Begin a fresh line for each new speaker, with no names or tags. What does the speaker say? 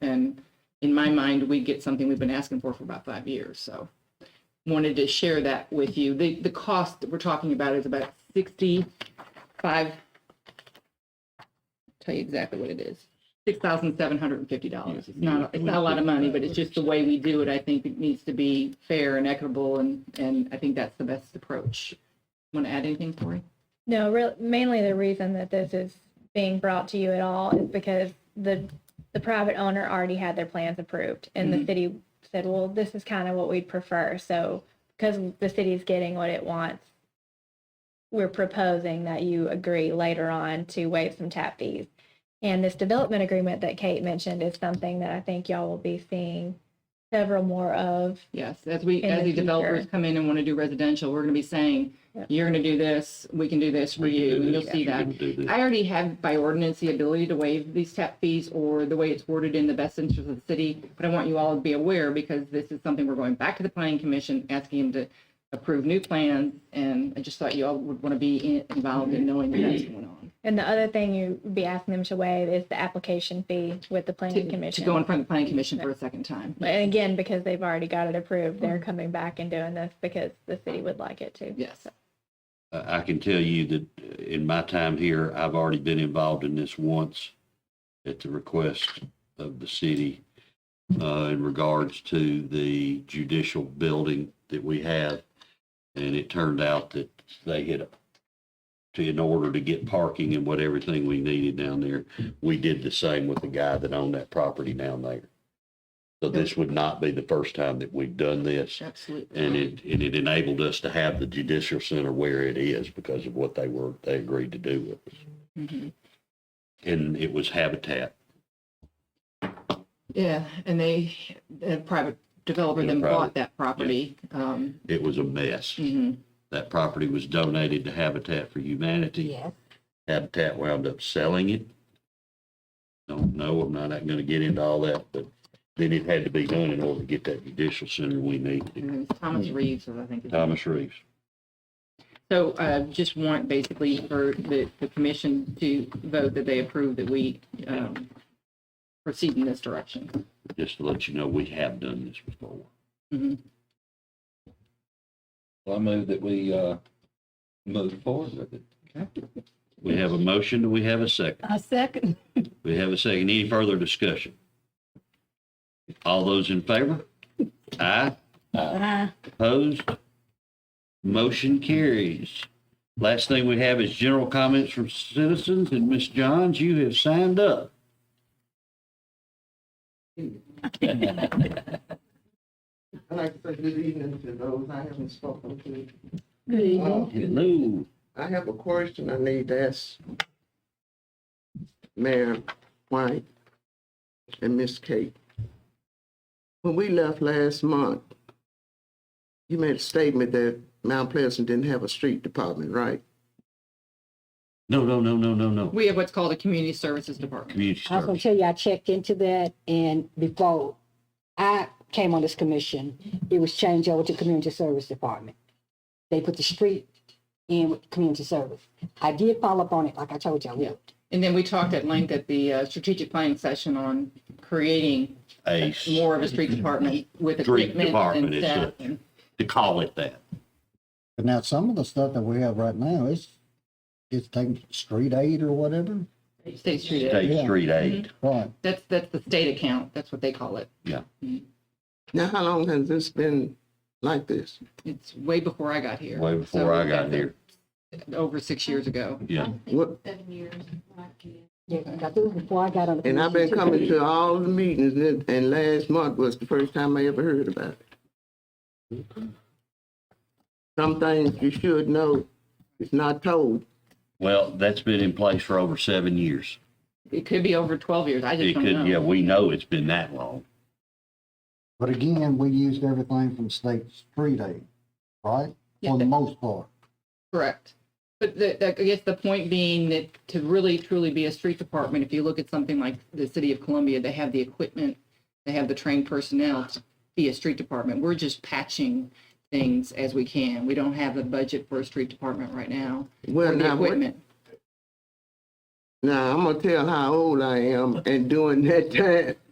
And in my mind, we get something we've been asking for for about five years, so wanted to share that with you. The, the cost that we're talking about is about sixty-five, tell you exactly what it is, six thousand seven hundred and fifty dollars. It's not, it's not a lot of money, but it's just the way we do it, I think it needs to be fair and equitable, and, and I think that's the best approach. Want to add anything, Cory?
No, real, mainly the reason that this is being brought to you at all is because the, the private owner already had their plans approved and
Mm-hmm.
the city said, well, this is kind of what we'd prefer. So because the city's getting what it wants, we're proposing that you agree later on to waive some tap fees. And this development agreement that Kate mentioned is something that I think y'all will be seeing several more of.
Yes, as we,
In
as
the
the developers
future.
come in and want to do residential, we're going to be saying,
Yep.
you're going to do this, we can do this for you, and you'll see that. I already have by ordinance the ability to waive these tap fees or the way it's worded in the best interest of the city, but I want you all to be aware because this is something we're going back to the planning commission, asking them to approve new plans, and I just thought you all would want to be in- involved in knowing what that's going on.
And the other thing you'd be asking them to waive is the application fee with the
To-
planning commission.
To go in front of the planning commission for a second time.
And again, because they've already got it approved, they're coming back and doing this because the city would like it to.
Yes,
I I can tell you that uh, in my time here, I've already been involved in this once at the request of the city uh, in regards to the judicial building that we have. And it turned out that they had, to, in order to get parking and what everything we needed down there, we did the same with the guy that owned that property down there. So this would not be the first time that we've done this
absolutely.
and it, and it enabled us to have the judicial center where it is because of what they were, they agreed to do with us.
Mhm.
And it was Habitat.
Yeah, and they, the private developer
Yeah,
then bought
private.
that property. Um,
It was a mess.
mhm.
That property was donated to Habitat for Humanity.
Yes.
Habitat wound up selling it. Don't know, I'm not gonna get into all that, but then it had to be done in order to get that judicial center we needed.
And it was Thomas
Mm-hmm.
Reeves, was, I think. his name.
Thomas Reeves.
So uh, just want basically for the, the commission to vote that they approve that we um, proceed in this direction.
just to let you know, we have done this before.
Mm-hmm.
Mhm.
Well, I move that we, uh, move forward with it.
We have a motion, and we have a second.
A second.
We have a second. Any further discussion? All those in favor? Aye. Uh,
Aye.
Opposed? Motion carries. Last thing we have is general comments from citizens, and Ms. Johns, you have signed up.
I'd like to say good evening to those I haven't spoken to.
Good evening.
Uh,
Hello.
I have a question I need to ask Mayor White and Miss Kate. When we left last month, you made a statement that Mount Pleasant didn't have a street department, right?
No, no, no, no, no, no.
We have what's called a community services department.
Community
I was gonna
service.
tell you, I checked into that and before I came on this commission, it was changed over to Community Service Department. They put the street in with Community Service. I did follow up on it, like I told you I would.
And then we talked at length at the uh, strategic planning session on creating
Ace,
more of a street department with
Street
equipment
department
and
is
staff.
it.
and-
to call it that.
But now some of the stuff that we have right now is it's taking street aid or whatever.
State Street. Aid.
State
Yeah.
Street Aid.
Right.
That's, that's the state account. That's what they call it.
Now, how long has this been like this?
It's way before I got here.
Way before I got here.
So, Over six years ago.
Yeah.
What,
Yeah, 'cause I think before I got on the.
and I've been
commission, too.
coming to all the meetings and, and last month was the first time I ever heard about it. Some things you should know, it's not told.
Well, that's been in place for over seven years.
It could be over 12 years. I just
It
don't know.
could, yeah, we know it's been that long.
But again, we used everything from state street aid, right?
Yeah,
For the
that-
most part.
Correct. But the, the- I guess the point being that to really truly be a street department, if you look at something like the city of Columbia, they have the equipment, they have the trained personnel to be a street department. We're just patching things as we can. We don't have the budget for a street department right now.
Well,
or the
now, what-
equipment.
now I'm gonna tell how old I am, and during that time,